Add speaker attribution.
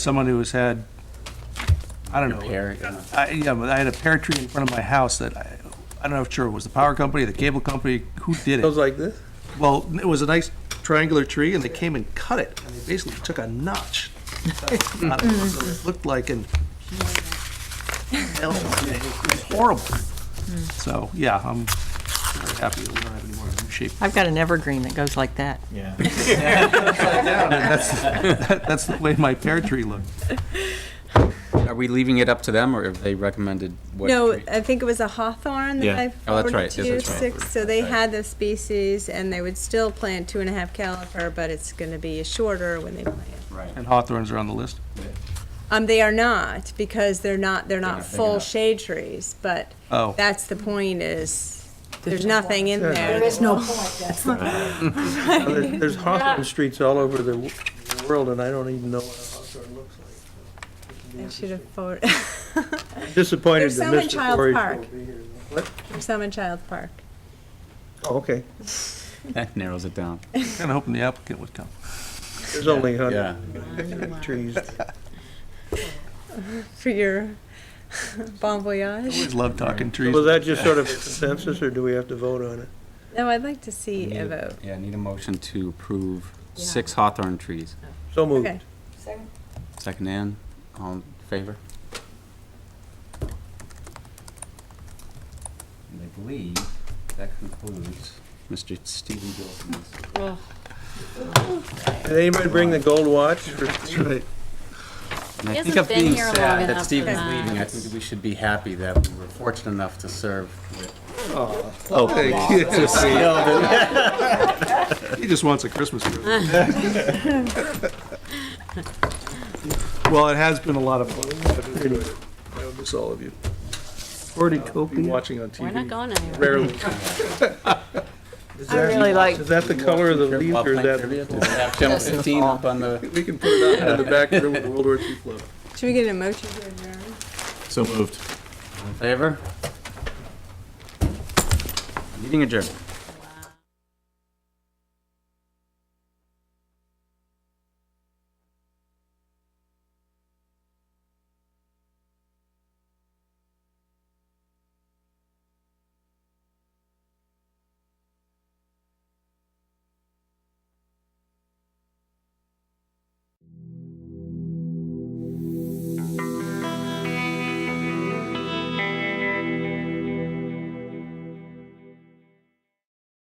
Speaker 1: someone who has had, I don't know.
Speaker 2: Pear, you know.
Speaker 1: I, yeah, but I had a pear tree in front of my house that I, I don't know if sure it was the power company, the cable company, who did it?
Speaker 3: like this?
Speaker 1: Well, it was a nice triangular tree and they came and cut it and they basically took a notch. out of it, so It Looked like an. Hell, It was horrible. So, yeah, I'm very happy that we don't have any more of them shape.
Speaker 4: I've got an evergreen that goes like that.
Speaker 2: Yeah.
Speaker 1: That's the way my pear tree looked.
Speaker 2: Are we leaving it up to them, or have they recommended what?
Speaker 5: No,
Speaker 2: tree?
Speaker 5: I think it was a hawthorn
Speaker 2: Yeah.
Speaker 5: that I
Speaker 2: Oh, that's
Speaker 5: forwarded
Speaker 2: right.
Speaker 5: to
Speaker 2: Yes,
Speaker 5: you,
Speaker 2: that's right.
Speaker 5: six, so they had the species, and they would still plant two and a half caliper, but it's gonna be shorter when they plant.
Speaker 2: Right.
Speaker 1: And hawthorns are on the list.
Speaker 5: Um, they are not, because they're not, they're
Speaker 2: not
Speaker 5: not
Speaker 2: big
Speaker 5: full
Speaker 2: enough.
Speaker 5: shade trees, but
Speaker 1: Oh.
Speaker 5: that's the point is, there's nothing in there.
Speaker 3: There
Speaker 5: is no.
Speaker 3: There's Hawthorne streets all over the w- world, and I don't even know what a Hawthorne looks like.
Speaker 5: I should have forwarded,
Speaker 3: Disappointed
Speaker 5: There's
Speaker 3: that
Speaker 5: some in
Speaker 3: Mr.
Speaker 5: Child's
Speaker 3: Corey.
Speaker 5: Park.
Speaker 3: won't be here. What?
Speaker 5: some in Child Park.
Speaker 3: Oh, okay.
Speaker 6: uh,
Speaker 2: That narrows it down.
Speaker 1: Kind of hoping the applicant would come.
Speaker 3: There's only a
Speaker 2: Yeah.
Speaker 3: hundred trees.
Speaker 5: For your bon voyage.
Speaker 1: Always love talking trees.
Speaker 3: Was that just sort of a consensus, or do we have to vote on it?
Speaker 5: No, I'd like to see
Speaker 2: Need
Speaker 5: a
Speaker 2: a-
Speaker 5: vote.
Speaker 2: Yeah, need a motion to approve six hawthorn trees.
Speaker 3: So
Speaker 5: Okay.
Speaker 3: moved.
Speaker 2: Second in, all in favor? And I believe that concludes Mr. Stephen Gilson's.
Speaker 3: Did anybody bring the gold watch? That's right.
Speaker 2: And I
Speaker 6: He
Speaker 2: think
Speaker 6: hasn't
Speaker 2: of
Speaker 6: been
Speaker 2: being
Speaker 6: here long
Speaker 2: sad that
Speaker 6: enough
Speaker 2: Stephen's
Speaker 6: for
Speaker 2: leaving, I
Speaker 6: that.
Speaker 2: think that we should be happy that we were fortunate enough to serve with.
Speaker 1: He just wants a Christmas present. Well, it has been a lot of fun. I've enjoyed it. I will miss all of you. Been watching on
Speaker 6: We're not
Speaker 1: TV.
Speaker 6: going anywhere.
Speaker 1: Rarely.
Speaker 4: I really like,
Speaker 3: Is that the color of the leaf, or is that?
Speaker 2: Channel 15 up on the.
Speaker 1: We can put it out in the back room with World War II float.
Speaker 5: Should we get a motion to adjourn?
Speaker 2: So moved. Favor? Meeting adjourned.